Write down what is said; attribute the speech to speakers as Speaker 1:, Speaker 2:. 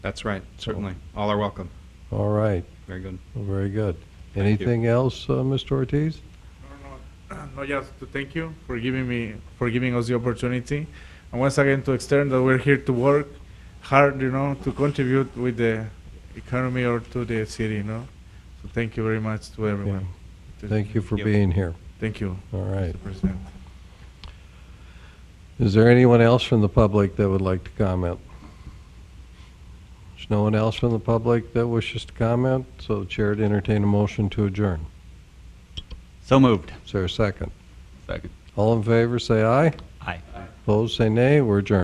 Speaker 1: That's right, certainly. All are welcome.
Speaker 2: All right,
Speaker 1: Very good.
Speaker 2: Well, very good.
Speaker 1: you.
Speaker 2: Anything else, uh, Mr. Ortiz?
Speaker 3: No, no, no, just to thank you for giving me, for giving us the opportunity. And once again, to extend that we're here to work hard, you know, to contribute with the economy or to the city, you know. So thank you very much to everyone.
Speaker 2: Thank you for
Speaker 1: Yep.
Speaker 2: being here.
Speaker 3: Thank you,
Speaker 2: All right.
Speaker 3: Mr. President.
Speaker 2: Is there anyone else from the public that would like to comment? There's no one else from the public that wishes to comment, so the chair to entertain a motion to adjourn.
Speaker 4: So moved.
Speaker 2: Is there a second?
Speaker 4: Second.
Speaker 2: All in favor, say aye.
Speaker 4: Aye.
Speaker 2: Opposed, say nay. We're adjourned.